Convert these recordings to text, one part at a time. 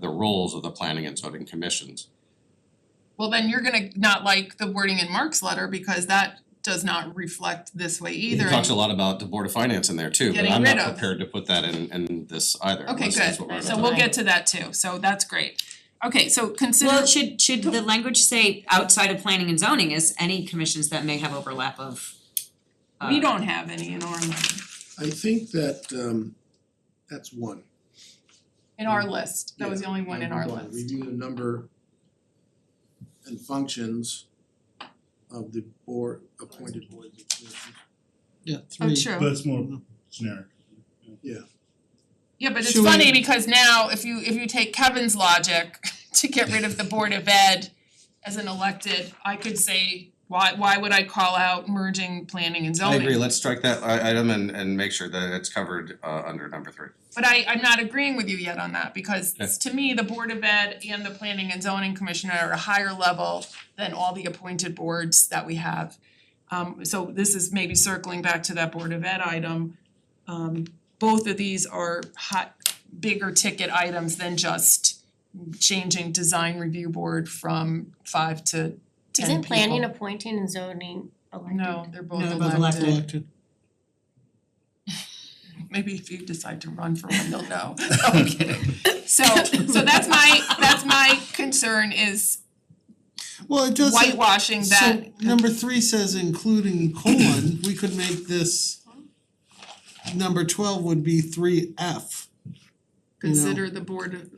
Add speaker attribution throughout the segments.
Speaker 1: the roles of the planning and zoning commissions.
Speaker 2: Well, then you're gonna not like the wording in Mark's letter because that does not reflect this way
Speaker 1: He
Speaker 2: either.
Speaker 1: talks a lot about the Board of Finance in there too, but
Speaker 2: Getting
Speaker 1: I'm
Speaker 2: rid
Speaker 1: not
Speaker 2: of.
Speaker 1: prepared to put that in in this either,
Speaker 2: Okay,
Speaker 1: unless that's what we're about
Speaker 2: good, so
Speaker 1: to
Speaker 2: we'll
Speaker 1: do.
Speaker 2: get to that too, so that's great. Okay, so
Speaker 3: Well,
Speaker 2: consider,
Speaker 3: should should the language say outside of planning and zoning is any commissions that may have overlap of uh,
Speaker 2: we don't have any in our line,
Speaker 4: I think that um that's one.
Speaker 2: in our list, that was the only one in our
Speaker 4: Number one,
Speaker 2: list.
Speaker 4: Review the number and functions of the board appointed boards and commissions.
Speaker 5: Yeah,
Speaker 2: Oh,
Speaker 5: three.
Speaker 2: true,
Speaker 6: That's more generic.
Speaker 2: yeah, but it's
Speaker 5: Should we-
Speaker 2: funny because now if you if you take Kevin's logic to get rid of the Board of Ed as an elected, I could say, why why would I call out merging planning and
Speaker 1: I
Speaker 2: zoning?
Speaker 1: agree, let's strike that i- item and and make sure that it's covered uh under number three.
Speaker 2: But I I'm not agreeing with you yet on that because
Speaker 1: Okay.
Speaker 2: to me, the Board of Ed and the Planning and Zoning Commissioner are a higher level than all the appointed boards that we have. Um so this is maybe circling back to that Board of Ed item. Um both of these are hot bigger ticket items than just changing design review board from five to ten
Speaker 7: Isn't planning
Speaker 2: people.
Speaker 7: appointing and zoning elected?
Speaker 2: No, they're both
Speaker 3: No,
Speaker 2: elected.
Speaker 3: they're both elected.
Speaker 2: Maybe if you decide to run for one, you'll know. I'm kidding. So so that's my that's my concern is
Speaker 5: Well, it does say,
Speaker 2: whitewashing
Speaker 5: so
Speaker 2: that.
Speaker 5: number three says including colon, we could make this number twelve would be three F.
Speaker 2: Consider the board of,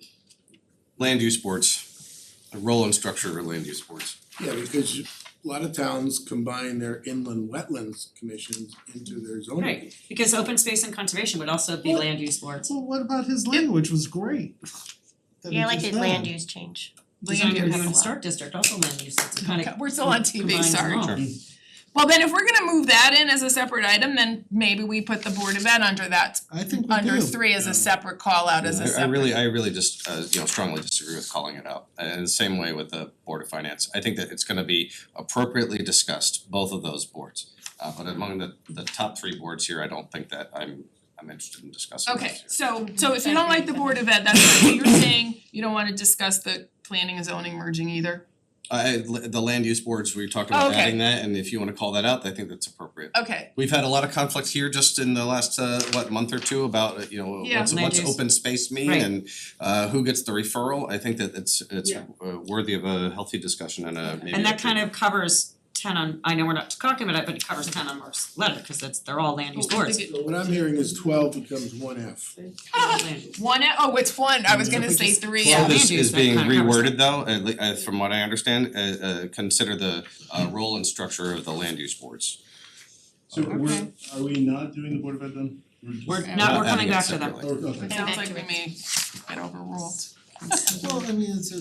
Speaker 1: Land use boards, the role and structure of land use boards.
Speaker 4: Yeah, because you- a lot of towns combine their inland wetlands commissions into their zoning.
Speaker 3: Right, because open space and conservation would also be
Speaker 5: Well-
Speaker 3: land use boards.
Speaker 5: Well, what about his language was great. That he
Speaker 7: Yeah, I like
Speaker 5: just
Speaker 7: the land
Speaker 5: had.
Speaker 7: use change.
Speaker 3: Design
Speaker 2: Land use.
Speaker 3: review and historic district also land use, it's kind
Speaker 2: Okay,
Speaker 3: of
Speaker 2: we're still on TV,
Speaker 3: combines them
Speaker 2: sorry.
Speaker 3: all.
Speaker 1: Sure.
Speaker 2: Well, then if we're gonna move that in as a separate item, then maybe we put the board of ed under that,
Speaker 5: I think we
Speaker 2: under
Speaker 5: do.
Speaker 2: three as a separate call out as a
Speaker 1: I I
Speaker 2: separate.
Speaker 1: really, I really just, uh, you know, strongly disagree with calling it out, and the same way with the Board of Finance, I think that it's gonna be appropriately discussed, both of those boards. Uh, but among the the top three boards here, I don't think that I'm I'm interested in discussing those
Speaker 2: Okay,
Speaker 1: here.
Speaker 2: so so if you don't like the board of ed, that's fine, so you're saying you don't wanna discuss the planning and zoning merging either?
Speaker 1: I, Uh, the land use boards, we talked
Speaker 2: Oh,
Speaker 1: about
Speaker 2: okay.
Speaker 1: adding that, and if you wanna call that out, I think that's appropriate.
Speaker 2: Okay,
Speaker 1: We've had a lot of conflict here just in the last uh what month or two about, uh, you know,
Speaker 2: Yeah.
Speaker 1: what's
Speaker 3: Land
Speaker 1: what's
Speaker 3: use.
Speaker 1: open space mean
Speaker 3: Right.
Speaker 1: and uh who gets the referral, I think that it's it's
Speaker 2: Yeah.
Speaker 1: uh, worthy of a healthy discussion and a maybe
Speaker 3: And
Speaker 1: a-
Speaker 3: that kind of covers ten on, I know we're not talking about it, but it covers ten on Mark's letter, cause that's, they're all land use
Speaker 2: Well, I
Speaker 3: boards.
Speaker 2: think
Speaker 4: So what I'm hearing is twelve becomes one F.
Speaker 2: one, oh, it's one, I was gonna
Speaker 5: Which
Speaker 2: say
Speaker 5: is
Speaker 2: three,
Speaker 5: twelve.
Speaker 2: yeah.
Speaker 1: Well,
Speaker 3: land
Speaker 1: this
Speaker 3: use,
Speaker 1: is
Speaker 3: that
Speaker 1: being
Speaker 3: kinda covers
Speaker 1: reworded though, at le- uh from what I understand, uh uh consider the uh role and structure of the land use boards.
Speaker 6: So we're,
Speaker 2: Okay.
Speaker 6: are we not doing the Board of Ed then? We're just.
Speaker 3: We're
Speaker 2: not-
Speaker 3: not, we're coming
Speaker 1: adding it
Speaker 3: back to them.
Speaker 1: separately.
Speaker 6: Oh, okay.
Speaker 2: Sounds like we may get overruled.
Speaker 5: Well, I mean, it's a,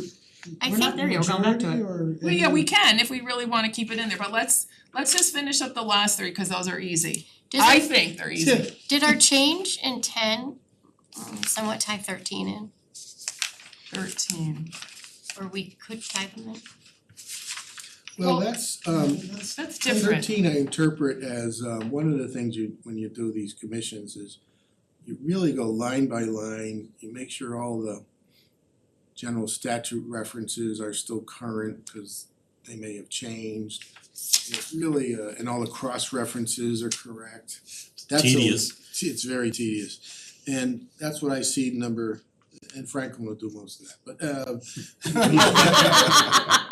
Speaker 7: I think-
Speaker 5: we're not
Speaker 3: There you go, going back to
Speaker 5: majority or
Speaker 2: Well, yeah, we
Speaker 5: any-
Speaker 2: can if we really wanna keep it in there, but let's let's just finish up the last three, cause those are easy.
Speaker 7: Does
Speaker 2: I
Speaker 7: our,
Speaker 2: think they're
Speaker 5: Yeah.
Speaker 2: easy.
Speaker 7: did our change in ten um, somewhat tie thirteen in,
Speaker 2: Thirteen.
Speaker 7: or we could tie them in?
Speaker 4: Well,
Speaker 2: Well-
Speaker 4: that's um
Speaker 5: That's-
Speaker 2: That's different.
Speaker 4: thirteen I interpret as um one of the things you, when you do these commissions is you really go line by line, you make sure all the general statute references are still current, cause they may have changed. It's really uh and all the cross references are correct. That's a-
Speaker 6: Tedious.
Speaker 4: It's very tedious. And that's what I see in number, and Franklin will do most of that, uh, but uh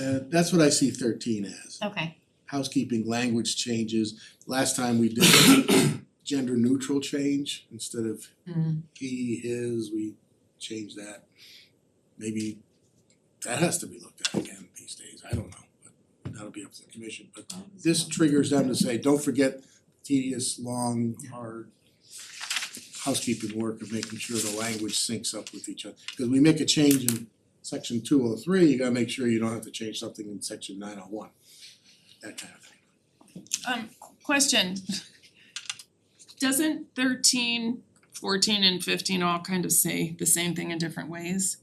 Speaker 4: uh that's what I see thirteen as
Speaker 7: Okay,
Speaker 4: housekeeping language changes. Last time we did gender neutral change, instead of
Speaker 2: Mm.
Speaker 4: he, his, we changed that. Maybe that has to be looked at again these days, I don't know, but that'll be up to the commission. But this triggers them to say, don't forget tedious, long, hard housekeeping work of making sure the language syncs up with each other. Cause we make a change in section two oh three, you gotta make sure you don't have to change something in section nine oh one, that kind of thing.
Speaker 2: Um, question. Doesn't 13, 14, and fifteen all kind of say the same thing in different ways?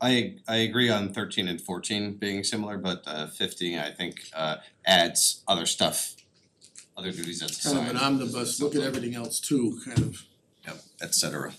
Speaker 1: I I agree on thirteen and fourteen being similar, but uh fifteen, I think uh adds other stuff, other duties that's
Speaker 4: kind of
Speaker 1: assigned.
Speaker 4: an omnibus, look at everything else too, kind of.
Speaker 1: Yep, et cetera.